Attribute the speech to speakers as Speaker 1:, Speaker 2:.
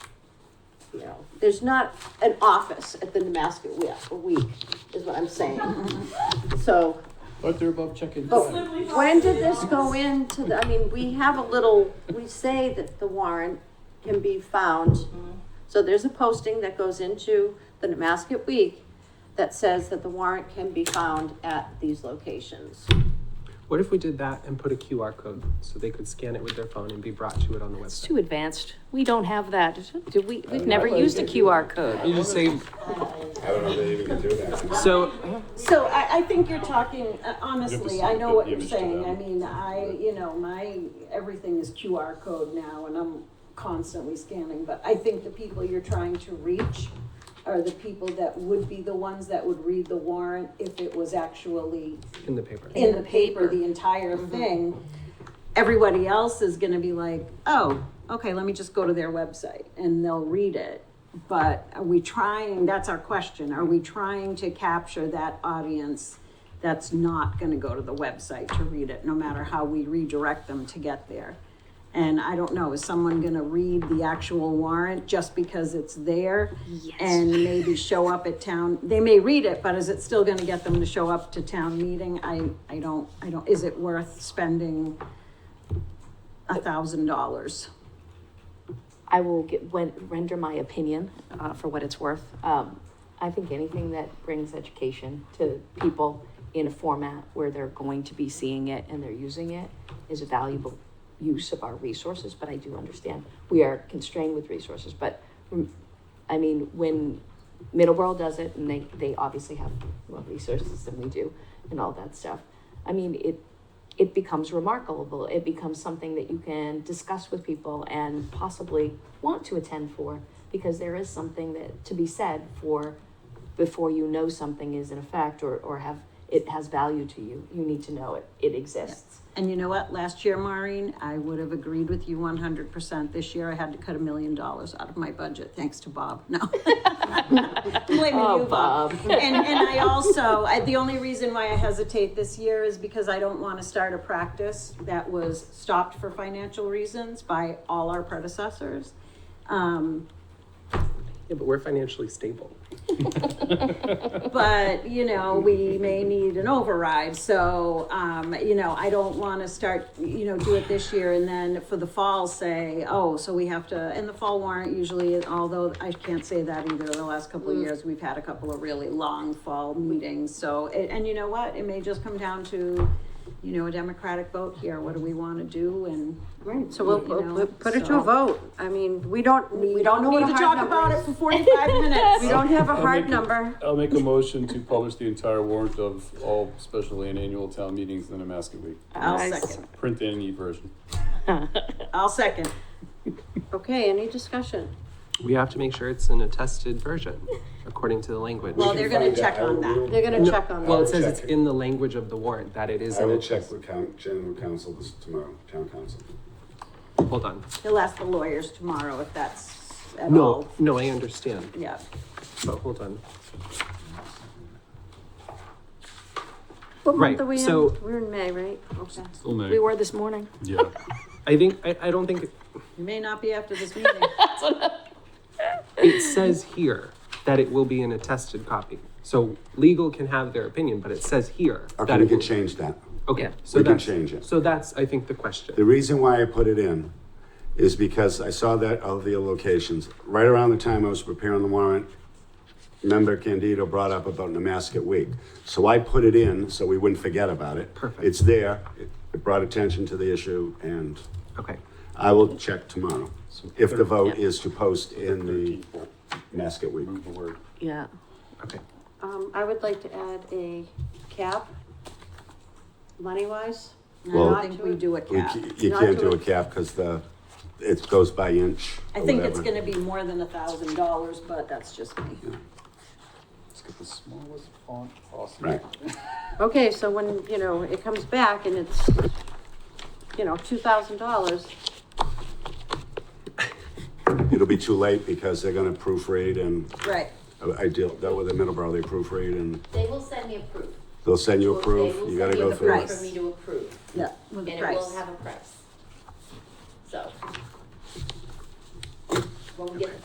Speaker 1: you know, there's not an office at the Nemasket Wheel, a week, is what I'm saying. So,
Speaker 2: But they're above checking.
Speaker 1: but
Speaker 3: Oh.
Speaker 1: when did this go into the, I mean, we have a little, we say that the warrant can be found.
Speaker 3: Mm-hmm.
Speaker 1: So there's a posting that goes into the Nemasket Week that says that the warrant can be found at these locations.
Speaker 4: What if we did that and put a QR code so they could scan it with their phone and be brought to it on the
Speaker 5: It's
Speaker 4: website?
Speaker 5: too advanced. We don't have that. Do we, we've
Speaker 2: don't
Speaker 5: never
Speaker 2: know.
Speaker 5: used a QR code.
Speaker 4: You just say,
Speaker 6: I don't know if they even can do that.
Speaker 4: so,
Speaker 1: So I, I think you're talking, uh, honestly, I know what you're
Speaker 2: image to
Speaker 1: saying,
Speaker 2: them.
Speaker 1: I mean, I, you know, my, everything is QR code now and I'm constantly scanning, but I think the people you're trying to reach are the people that would be the ones that would read the warrant if it was actually
Speaker 4: in the paper.
Speaker 1: in the paper, Mm-hmm. the entire thing. Everybody else is gonna be like, oh, okay, let me just go to their website and they'll read it. But are we trying, that's our question, are we trying to capture that audience that's not gonna go to the website to read it, no matter how we redirect them to get there? And I don't know, is someone gonna read the actual warrant just because it's there? And maybe show up at town, they may read it, but is it still gonna get them to show up to town meeting? I, I don't, I don't, is it worth spending a thousand dollars?
Speaker 5: I will get, when, render my opinion, uh, for what it's worth. Um, I think anything that brings education to people in a format where they're going to be seeing it and they're using it is a valuable use of our resources, but I do understand we are constrained with resources, but mm, I mean, when Middleborough does it and they, they obviously have more resources than we do and all that stuff. I mean, it, it becomes remarkable. It becomes something that you can discuss with people and possibly want to attend for because there is something that to be said for before you know something is in effect or, or have it has value to you. You need to know it. It exists.
Speaker 1: And you know what, last year, Maureen, I would have agreed with you one hundred percent. This year, I had to cut a million dollars out of my budget, thanks to Bob, no. Blaming you,
Speaker 5: Oh,
Speaker 1: Bob. And, and I also, I, the only reason why I hesitate this year is because I don't wanna start a practice that was stopped for financial reasons by all our predecessors. Um,
Speaker 4: Yeah, but we're financially stable.
Speaker 1: but you know we may need an override so um, you know i don't want to start you know do it this year and then for the fall say oh so we have to and the fall warrant usually although i can't say that either the last couple of
Speaker 3: Mm.
Speaker 1: years we've had a couple of really long fall meetings so and, and you know what it may just come down to you know a democratic vote here what do we want to do and
Speaker 3: Right, so we'll,
Speaker 1: You
Speaker 3: we'll
Speaker 1: know,
Speaker 3: put- put it to
Speaker 1: so-
Speaker 3: a vote. I mean, we don't, we
Speaker 1: we
Speaker 3: don't know
Speaker 1: need
Speaker 3: what a
Speaker 1: to
Speaker 3: hard
Speaker 1: talk about
Speaker 3: number
Speaker 1: it
Speaker 3: is.
Speaker 1: for 45 minutes
Speaker 3: We don't have a
Speaker 2: I'll
Speaker 3: hard
Speaker 2: make it-
Speaker 3: number.
Speaker 2: I'll make a motion to publish the entire warrant of all special and annual town meetings in the Nemasket Week,
Speaker 1: i'll second
Speaker 2: print and e-version.
Speaker 1: i'll second
Speaker 3: Okay, any discussion?
Speaker 4: We have to make sure it's an attested version according to the language.
Speaker 1: Well, they're gonna check on that.
Speaker 3: They're gonna check on
Speaker 4: Well,
Speaker 3: that.
Speaker 4: it says it's in the language of the warrant that it is
Speaker 6: I
Speaker 4: an
Speaker 6: will check
Speaker 4: attested.
Speaker 6: with coun- general counsel this tomorrow, town council.
Speaker 4: Hold on.
Speaker 1: He'll ask the lawyers tomorrow if that's at all.
Speaker 4: No, no, I understand,
Speaker 1: Yeah.
Speaker 4: but hold on.
Speaker 3: What
Speaker 4: right,
Speaker 3: month are we in?
Speaker 4: so-
Speaker 3: We're in May, right? Okay.
Speaker 2: Still
Speaker 5: We were this morning.
Speaker 2: Yeah.
Speaker 4: I think, I, I don't think,
Speaker 1: It may not be after this meeting.
Speaker 4: it says here that it will be an attested copy. So legal can have their opinion, but it says here
Speaker 6: Okay,
Speaker 4: that
Speaker 6: we
Speaker 4: it
Speaker 6: can
Speaker 4: will.
Speaker 6: change that.
Speaker 4: Okay, so
Speaker 6: We can
Speaker 4: that's.
Speaker 6: change it.
Speaker 4: So that's, I think, the question.
Speaker 6: The reason why I put it in is because I saw that of the locations, right around the time I was preparing the warrant, member Candido brought up about Nemasket Week. So I put it in so we wouldn't forget about it.
Speaker 4: Perfect.
Speaker 6: It's there, it it brought attention to the issue, and
Speaker 4: Okay,
Speaker 6: I will check tomorrow if the vote is to post in the Nemasket Week.
Speaker 2: Move the word.
Speaker 5: Yeah.
Speaker 4: okay.
Speaker 3: Um, I would like to add a cap, money-wise.
Speaker 6: Well-
Speaker 1: I think we do a
Speaker 6: We
Speaker 1: cap.
Speaker 6: ca- You
Speaker 3: Not
Speaker 6: can't
Speaker 3: do
Speaker 6: do a
Speaker 3: it.
Speaker 6: cap because the, it goes by inch
Speaker 1: I
Speaker 6: or
Speaker 1: think it's
Speaker 6: whatever.
Speaker 1: gonna be more than a thousand dollars, but that's just me.
Speaker 2: Let's get the smallest font possible.
Speaker 6: Right.
Speaker 3: Okay, so when, you know, it comes back and it's, you know, two thousand dollars,
Speaker 6: It'll be too late because they're gonna proofread and uh,
Speaker 1: Right.
Speaker 6: I I deal, that with the Middleborough, they proofread and
Speaker 7: They will send me a proof.
Speaker 6: they'll send you a proof,
Speaker 7: They will
Speaker 6: you gotta
Speaker 7: send me
Speaker 6: go
Speaker 7: the
Speaker 6: through
Speaker 7: proof
Speaker 6: it.
Speaker 7: For me to approve,
Speaker 1: Yeah. With
Speaker 7: and
Speaker 1: the
Speaker 7: it will
Speaker 1: price.
Speaker 7: have a price. So. When we get the